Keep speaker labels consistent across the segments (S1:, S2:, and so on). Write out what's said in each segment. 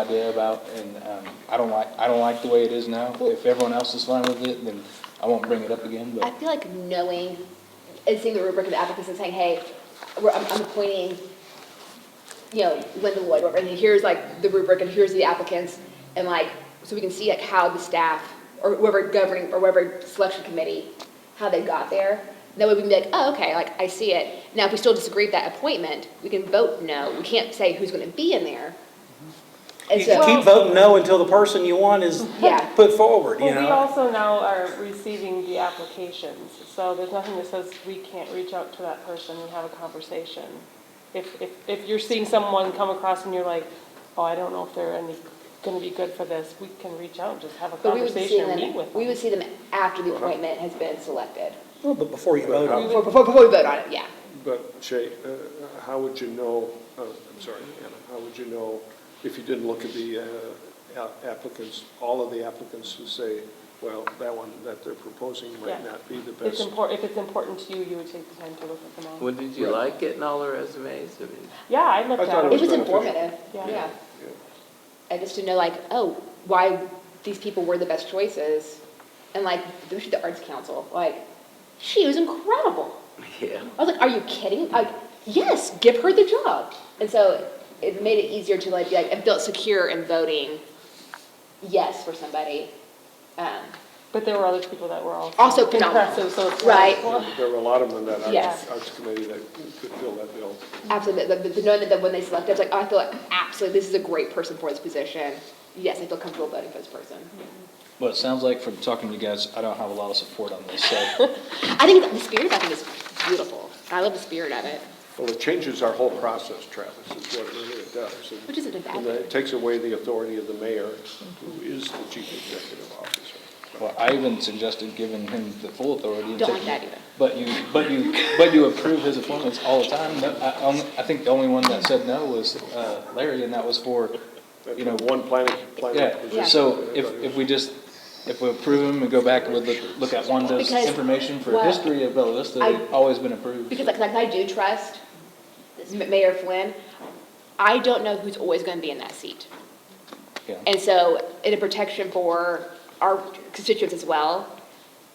S1: idea about, and um, I don't like, I don't like the way it is now. If everyone else is fine with it, then I won't bring it up again,
S2: I
S1: but
S2: feel like knowing and seeing the rubric of the applicants and saying, hey, we're, I'm, I'm appointing, you know, Linda Lloyd, whatever, and here's like the rubric and here's the applicants, and like, so we can see like how the staff or whoever governing or whoever selection committee, how they got there. That way we can be like, oh, okay, like I see it. Now, if we still disagree with that appointment, we can vote no. We can't say who's going to be in there. And
S3: You can
S2: so,
S3: keep voting no until the person you want is
S2: Yeah.
S3: put forward, you
S4: Well, we
S3: know?
S4: also now are receiving the applications, so there's nothing that says we can't reach out to that person and have a conversation. If, if, if you're seeing someone come across and you're like, oh, I don't know if they're any, gonna be good for this, we can reach out and just have a
S2: but we would see
S4: conversation and meet
S2: them,
S4: with
S2: we
S4: them. Uh-huh.
S2: would see them after the appointment has been selected.
S3: Well, But before you vote on it.
S2: Before, before we vote on it, yeah.
S5: But Shay, uh, how would you know, uh, I'm sorry, Anna, how would you know if you didn't look at the uh, a- applicants, all of the applicants who say, well, that one that they're proposing might
S4: Yeah.
S5: not be the
S4: It's
S5: best?
S4: impor, if it's important to you, you would take the time to look at them all.
S6: Well, did you like getting all the resumes? I mean,
S4: Yeah, I looked
S5: I thought
S4: at
S2: It
S4: it.
S2: was informative,
S4: Yeah.
S2: yeah.
S5: Yeah.
S2: I just to know like, oh, why these people were the best choices. And like, especially the Arts Council, like, she was incredible.
S6: yeah.
S2: I was like, are you kidding? Like, yes, give her the job. And so it made it easier to like, be like, I felt secure in voting yes for somebody. Um,
S4: But there were other people that were also.
S2: Also phenomenal.
S4: impressive, so it's like,
S2: Right.
S4: well,
S5: There were a lot of them in that
S2: Yes.
S5: Arts- Arts Committee that could fill that bill.
S2: Absolutely, the, the, the knowing that that when they select, I was like, oh, I feel like absolutely, this is a great person for this position. Yes, I feel comfortable voting for this person.
S1: well, it sounds like from talking to you guys, I don't have a lot of support on this, so.
S2: I think the spirit of it is beautiful. I love the spirit of it.
S5: Well, it changes our whole process, Travis, is what it really does. And-
S2: Which isn't a bad
S5: and
S2: thing. Mm-hmm.
S5: It takes away the authority of the mayor, who is the chief executive officer.
S1: Well, I even suggested giving him the full authority. and
S2: Don't
S1: taking-
S2: like that either.
S1: But you, but you, but you approve his appointments all the time. No, I, only- I think the only one that said no was uh, Larry, and that was for, you know,
S5: One planning, planning
S1: Yeah,
S5: position.
S1: so if, if we just, if we approve them and go back and look, look at Wanda's
S2: Because-
S1: information for
S2: well,
S1: history of Bella Vista, they've
S2: I-
S1: always been approved.
S2: Because like, like I do trust M- Mayor Flynn, I don't know who's always gonna be in that seat.
S1: Yeah.
S2: And so, in a protection for our constituents as well,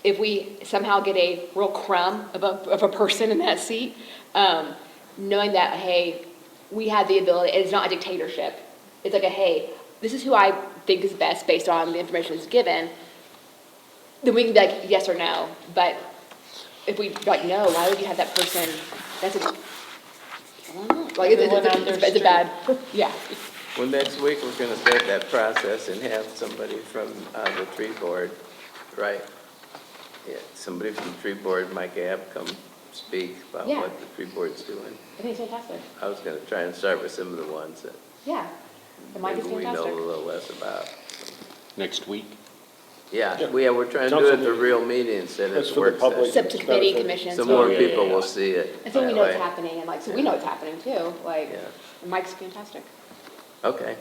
S2: if we somehow get a real crumb of a, of a person in that seat, um, knowing that, hey, we have the ability, it's not a dictatorship. It's like a, hey, this is who I think is best based on the information that's given, then we can be like, yes or no, but if we, like, no, why would you have that person, that's a, like, it's,
S4: Everyone
S2: it's,
S4: on their
S2: it's- it's a
S4: street.
S2: bad, yeah.
S6: Well, next week, we're gonna start that process and have somebody from, uh, the tree board, right? Yeah, somebody from the tree board, Mike App, come speak about
S2: Yeah.
S6: what the tree board's doing.
S2: I think it's fantastic,
S6: I was gonna try and start with some of the ones that
S2: yeah. The mic is
S6: maybe we know a
S2: fantastic.
S6: little less about.
S7: next week.
S6: Yeah, we, yeah, we're trying to do it at the
S5: Council
S6: real meeting instead
S5: That's
S6: of
S5: for the
S6: work
S5: public.
S6: session.
S2: Except to committee, commissions.
S6: So more
S2: yeah.
S6: people will see it.
S2: And so we
S6: that
S2: know it's
S6: way.
S2: happening, and like, so we know it's happening too, like,
S6: Yeah.
S2: the mic's fantastic.
S6: Okay.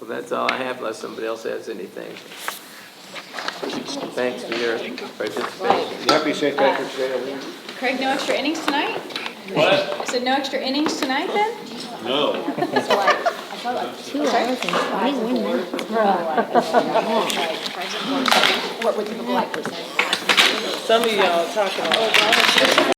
S6: Well, that's all I have unless somebody else has anything. Thanks for your participation.
S2: Right.
S5: Happy St. Patrick's Day, everyone.
S8: Craig, no extra innings tonight? What? I said no extra innings tonight then?
S2: That's why I felt like two hours and five minutes. What would people like to say?
S4: Some of y'all talk about.